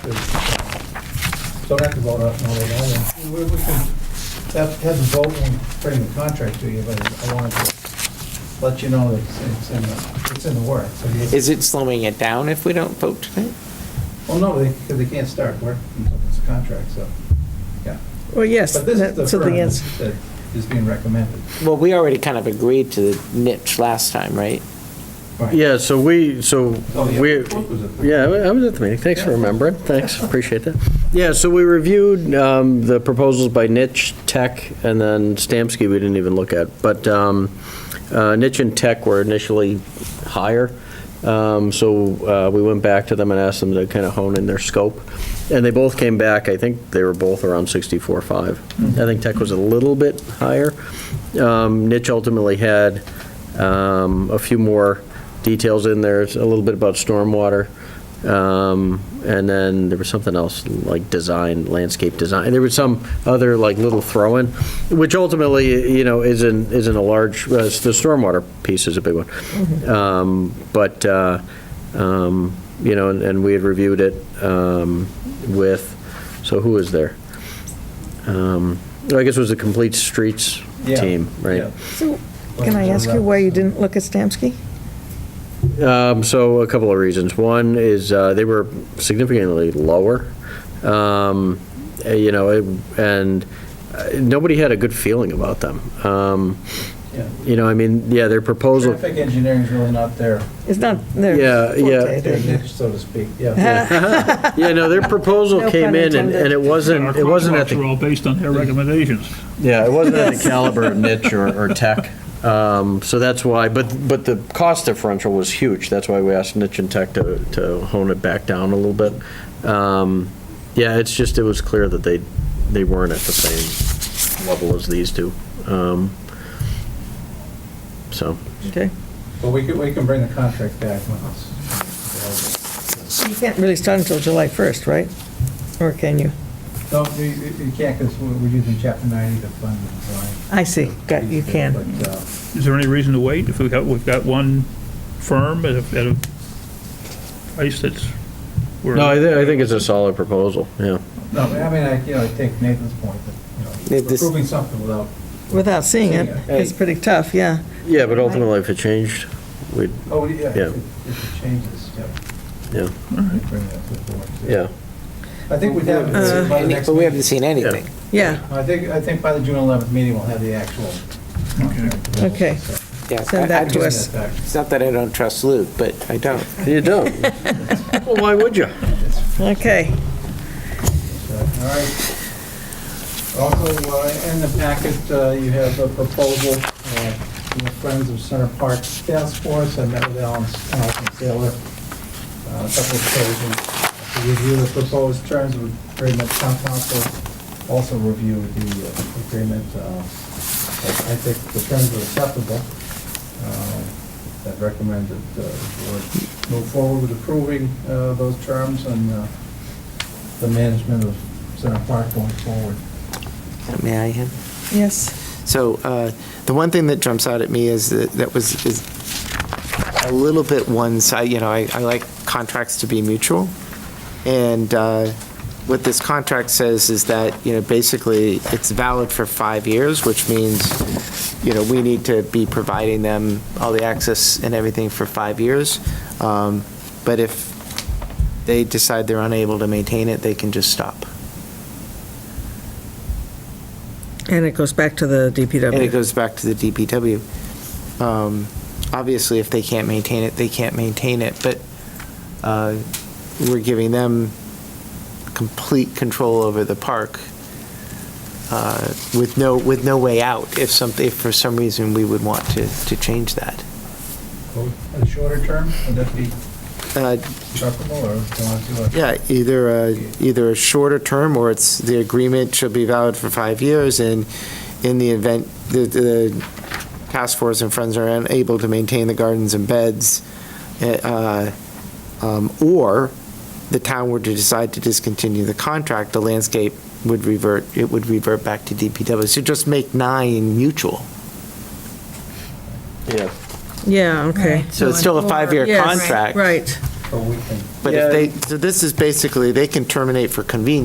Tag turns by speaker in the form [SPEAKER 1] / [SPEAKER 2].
[SPEAKER 1] Don't have to vote on all of that. And We we can have, have the vote and bring the contract to you, but I wanted to let you know that it's- it's in the, it's in the works. So you-
[SPEAKER 2] Is it slowing it down if we don't vote tonight?
[SPEAKER 1] Well, no, they, because they can't start work until it's a contract, so, yeah.
[SPEAKER 3] Well, yes,
[SPEAKER 1] But this is the
[SPEAKER 3] that's
[SPEAKER 1] firm
[SPEAKER 3] the answer.
[SPEAKER 1] that is being recommended.
[SPEAKER 2] Well, we already kind of agreed to the niche last time, right?
[SPEAKER 1] Right.
[SPEAKER 4] Yeah, so we, so
[SPEAKER 1] Oh, yeah.
[SPEAKER 4] we,
[SPEAKER 1] What was it?
[SPEAKER 4] yeah, I was at the meeting, thanks for remembering, thanks, appreciate that. Yeah, so we reviewed um, the proposals by Nitch, Tech, and then Stamsky we didn't even look at, but um, uh, Nitch and Tech were initially higher, Um, so uh, we went back to them and asked them to kind of hone in their scope, and they both came back, I think they were both around 64.5.
[SPEAKER 1] Mm-hmm.
[SPEAKER 4] I think Tech was a little bit higher. Um, Nitch ultimately had um, a few more details in there, It's a little bit about stormwater, um, and then there was something else, like design, landscape design, there was some other like little throw-in, which ultimately, you know, isn't, isn't a large, uh, the stormwater piece is a big one. Um, But, uh, um, you know, and- and we had reviewed it um, with, so who was there? Um, I guess it was the Complete Streets
[SPEAKER 1] Yeah,
[SPEAKER 4] team, right?
[SPEAKER 1] yeah.
[SPEAKER 3] So, can I ask you why you didn't look at Stamsky?
[SPEAKER 4] Um, So a couple of reasons. One is uh, they were significantly lower, um, eh, you know, it- and uh, nobody had a good feeling about them. Um,
[SPEAKER 1] Yeah.
[SPEAKER 4] You know, I mean, yeah, their proposal,
[SPEAKER 1] Traffic engineering's really not their,
[SPEAKER 3] It's not their
[SPEAKER 4] Yeah, yeah.
[SPEAKER 3] forte,
[SPEAKER 1] their
[SPEAKER 3] they-
[SPEAKER 1] niche, so to speak, yeah.
[SPEAKER 4] yeah, no, their
[SPEAKER 3] No
[SPEAKER 4] proposal
[SPEAKER 3] pun
[SPEAKER 4] came in and
[SPEAKER 3] intended.
[SPEAKER 4] and it wasn't, it wasn't at the
[SPEAKER 5] Our contracts are all based on their recommendations.
[SPEAKER 4] Yeah, it wasn't at the caliber of niche or, or tech. Um, So that's why, but, but the cost differential was huge. That's why we asked niche and tech to, to hone it back down a little bit. Um, Yeah, it's just, it was clear that they, they weren't at the same level as these two. Um, So,
[SPEAKER 3] Okay.
[SPEAKER 1] But we can, we can bring the contract back when it's.
[SPEAKER 3] You can't really start until July 1st, right? Or can you?
[SPEAKER 1] No, you, you you can't, because we're we're using chapter ninety to fund the design.
[SPEAKER 3] I see, got, you can.
[SPEAKER 1] But, uh,
[SPEAKER 5] Is there any reason to wait if we've got, we've got one firm at a, at a price that's? we're-
[SPEAKER 4] no, I, thi- I think it's a solid proposal, yeah.
[SPEAKER 1] No, I mean, I, you know, I take Nathan's point, that, you
[SPEAKER 2] If
[SPEAKER 1] know,
[SPEAKER 2] this-
[SPEAKER 1] approving something without,
[SPEAKER 3] Without seeing it,
[SPEAKER 1] Seeing
[SPEAKER 3] it's pretty tough, yeah.
[SPEAKER 4] Yeah, but ultimately if it changed, we'd,
[SPEAKER 1] oh, yeah,
[SPEAKER 4] Yeah.
[SPEAKER 1] if if it changes, yeah.
[SPEAKER 4] Yeah.
[SPEAKER 1] Bring that to the board.
[SPEAKER 4] yeah.
[SPEAKER 1] I think we'd have,
[SPEAKER 3] Uh,
[SPEAKER 1] it Uh, by the next
[SPEAKER 2] But we haven't
[SPEAKER 1] meeting.
[SPEAKER 2] seen anything.
[SPEAKER 3] Yeah,
[SPEAKER 1] I think, I think by the June eleventh meeting, we'll have the actual. contract.
[SPEAKER 3] Okay.
[SPEAKER 1] So,
[SPEAKER 2] Yeah,
[SPEAKER 3] Send
[SPEAKER 2] I- I
[SPEAKER 3] that to
[SPEAKER 2] just-
[SPEAKER 3] us.
[SPEAKER 1] that back.
[SPEAKER 2] It's not that I don't trust Luke, but I don't.
[SPEAKER 4] You don't. Well, why would you?
[SPEAKER 3] okay.
[SPEAKER 1] So, All right. Also, uh, in the packet, uh, you have a proposal uh, from the Friends of Center Park Task Force. I met with Alan Alan Taylor uh, a couple of occasions to review the proposed terms of agreement. Town council also reviewed the uh, agreement. Uh, I I think the terms are acceptable. Uh, I'd recommend that uh, the board move forward with approving uh, those terms and uh, the management of Center Park going forward.
[SPEAKER 2] May I have?
[SPEAKER 3] Yes,
[SPEAKER 2] So uh, the one thing that jumps out at me is that that was, is a little bit one side, you know, I, I like contracts to be mutual. And uh, what this contract says is that, you know, basically, it's valid for five years, which means, you know, we need to be providing them all the access and everything for five years. Um, But if they decide they're unable to maintain it, they can just stop.
[SPEAKER 3] and it goes back to the DPW.
[SPEAKER 2] And it goes back to the DPW. Um, Obviously, if they can't maintain it, they can't maintain it, but uh, we're giving them complete control over the park uh, with no, with no way out if some, if for some reason we would want to, to change that.
[SPEAKER 1] A shorter term, would that be
[SPEAKER 2] Uh,
[SPEAKER 1] acceptable, or do you want to do a?
[SPEAKER 2] Yeah, either, a- either a shorter term, or it's, the agreement should be valid for five years, and in the event, the, the task force and friends are unable to maintain the gardens and beds, eh, uh, um, or the town were to decide to discontinue the contract, the landscape would revert, it would revert back to DPW. So just make nine mutual.
[SPEAKER 4] Yeah.
[SPEAKER 3] Yeah, okay.
[SPEAKER 2] So it's still a five-year
[SPEAKER 3] Yes,
[SPEAKER 2] contract.
[SPEAKER 3] Right,
[SPEAKER 1] so we can
[SPEAKER 2] But if they, so this is basically, they can terminate for convenience